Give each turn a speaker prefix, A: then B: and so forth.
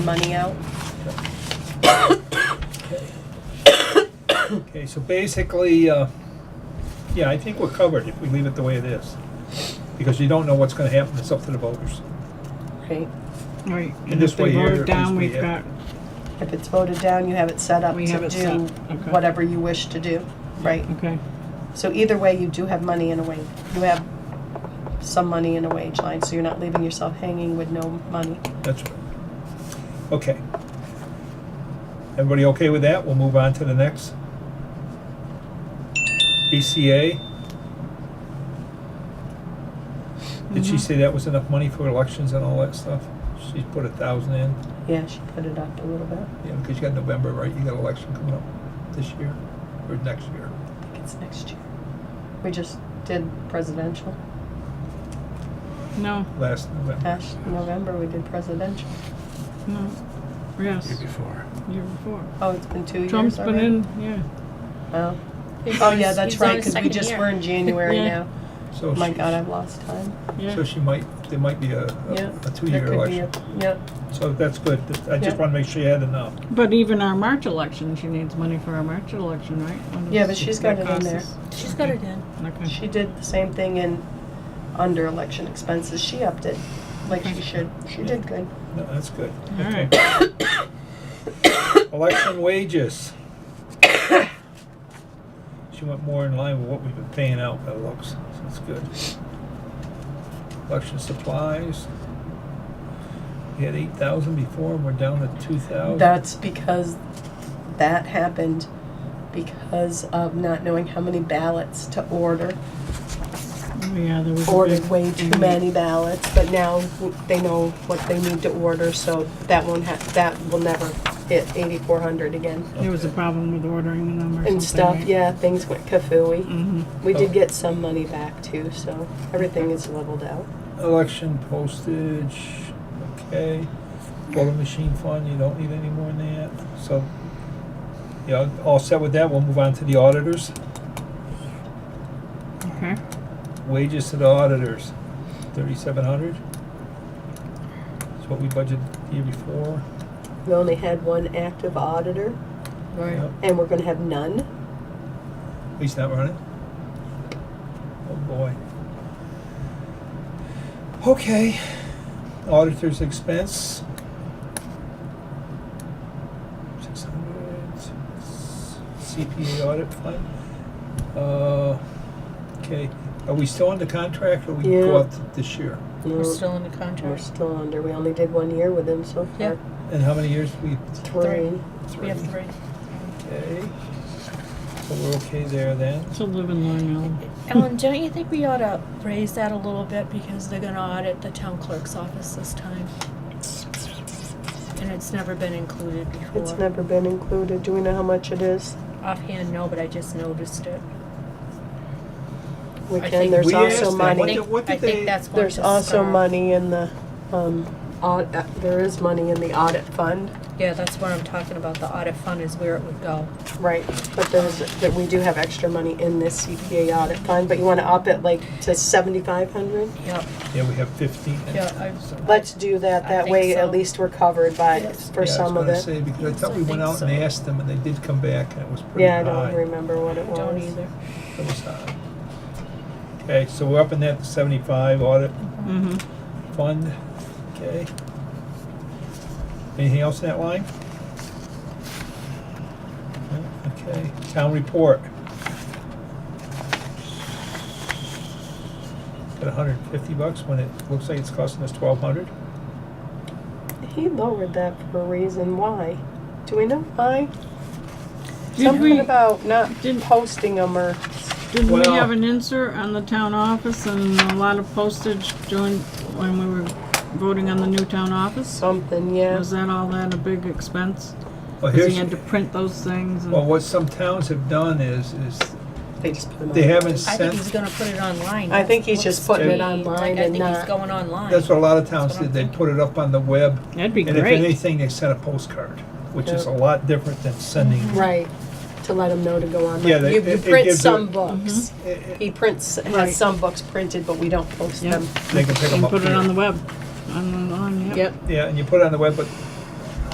A: money out.
B: Okay, so basically, uh, yeah, I think we're covered if we leave it the way it is. Because you don't know what's gonna happen, it's up to the voters.
A: Right.
C: Right,
B: And
C: and
B: this
C: if they
B: way here,
C: vote
B: at
C: it down,
B: least we
C: we've got,
B: have-
A: If it's voted down, you have it set up
C: We
A: to
C: have it
A: do
C: set, okay. Mm-hmm.
A: whatever you wish to do, right?
C: okay,
A: So either way, you do have money in a wage, you have some money in a wage line, so you're not leaving yourself hanging with no money.
B: That's right. Okay. Everybody okay with that? We'll move on to the next. BCA. Did she say that was enough money for elections and all that stuff? She put a thousand in,
A: Yeah, she put it up a little bit,
B: yeah, because you got November, right? You got election coming up this year or next year.
A: I think it's next year. We just did presidential,
C: no,
B: last November.
A: last November, we did presidential.
C: no, yes,
D: before.
C: year before.
A: Oh, it's been two years already?
C: Trump's been in, yeah,
A: Oh,
E: He's
A: oh
E: on
A: yeah,
E: his-
A: that's
E: he's on
A: right, because
E: his
A: we
E: second
A: just,
E: year.
A: we're in January
C: Yeah.
A: now.
B: So
A: Oh My
B: she-
A: God, I've lost time.
B: So
C: yeah,
B: she might, there might be a, a-
A: Yeah.
B: a
A: There
B: two-year
A: could be
B: election.
A: a- Yep.
B: So that's good. I
A: Yeah.
B: just want to make sure you had enough.
C: but even our March election, she needs money for our March election, right? What
A: Yeah,
C: is-
A: but she's got
C: what
A: it in
C: costs
A: there.
C: us?
E: She's got it in.
C: Okay,
A: She did the same thing in under election expenses. She upped it like she should. She did good.
B: No, that's good.
C: all
B: Okay.
C: right,
B: Election wages. She went more in line with what we've been paying out by the looks, so that's good. Election supplies. We had eight thousand before, and we're down to two thousand.
A: That's because that happened because of not knowing how many ballots to order.
C: Oh, yeah, there was a
A: Ordered
C: big-
A: way too many ballots, but now they know what they need to order, so that won't ha that will never hit eighty-four hundred again.
C: There was a problem with ordering them or something,
A: And stuff,
C: right?
A: yeah, things went kafooey.
C: Mhm.
A: We did get some money back too, so everything is leveled out.
B: Election postage, okay. Voting machine fund, you don't need any more than that. So, you know, all set with that, we'll move on to the auditors.
C: okay,
B: Wages to the auditors, thirty-seven hundred. That's what we budgeted the year before.
A: We only had one active auditor.
B: Right.
A: And we're gonna have none?
B: He's not running. Oh, boy. Okay. Auditor's expense. Six hundred. CPA audit fund. Uh, okay, are we still under contract or we
A: Yeah.
B: go up th- this year?
E: We're still in the
A: We're
E: contract.
A: still under, we only did one year with them so far.
E: Yeah.
B: And how many years we?
A: Three.
E: We have three.
B: Okay. So we're okay there then.
C: it's a living long island,
E: Ellen, don't you think we ought to raise that a little bit because they're gonna audit the town clerk's office this time? And it's never been included before.
A: It's never been included, do we know how much it is?
E: Offhand, no, but I just noticed it.
A: We
E: I
A: can,
E: think-
A: there's
B: We asked
A: also
B: them, what
A: money,
B: did- what
E: I
B: did they-
E: think that's what
A: there's
E: this
A: also
E: started.
A: money in the, um, aud- uh, there is money in the audit fund.
E: Yeah, that's what I'm talking about. The audit fund is where it would go.
A: Right, but there's, that we do have extra money in this CPA audit fund, but you wanna up it like to seventy-five hundred?
E: Yep.
B: Yeah, we have fifteen.
E: Yeah, I-
B: So-
A: Let's do that,
E: I
A: that
E: think
A: way
E: so.
A: at least we're covered by,
E: Yes.
A: for some of
B: Yeah, I was
A: it.
B: gonna say, because I
E: Yes,
B: thought
E: I
B: we went
E: think
B: out and
E: so.
B: asked them, and they did come back, and it was pretty
A: Yeah, I
B: high.
A: don't remember what it was.
E: Don't either.
B: It was high. Okay, so we're up in that seventy-five audit
C: mm-hmm.
B: fund, okay? Anything else in that line? No? Okay, town report. Got hundred and fifty bucks when it looks like it's costing us twelve hundred.
A: He lowered that for a reason. Why? Do we know why?
C: Did
A: Something
C: we-
A: about not
C: did-
A: posting them or
C: Didn't we
B: Well-
C: have an insert on the town office and a lot of postage during, when we were voting on the new town office?
A: something, yeah.
C: Was that all that a big expense?
B: Well,
C: Cause
B: here's,
C: he had to print those things
B: well,
C: and,
B: what some towns have done is, is
A: They just put them
B: They
A: on.
B: haven't
E: I think
B: sent,
E: he's gonna put it online.
A: I think he's
E: That's
A: just
E: what
A: putting
B: it
E: to me,
A: online
E: like,
A: and
E: I think
A: not-
E: he's going online.
B: that's what a lot of towns
E: That's what
B: did,
E: I'm
B: they
E: thinking.
B: put it up on the web.
C: that'd be
B: And if
C: great.
B: anything, they sent a postcard, which is a
A: Yeah.
B: lot different than sending,
A: Right. To let them know to go on.
B: Yeah, they-
A: you,
B: it-
A: you
B: it
A: print
B: gives it-
A: some books.
B: Eh, eh,
A: He prints has
C: Right.
A: some books printed, but we don't post
C: Yep.
A: them.
B: they can pick them
C: And
B: up
C: put it on the
B: here.
C: web, on, on, yep.
B: Yeah, and you put it on the web, but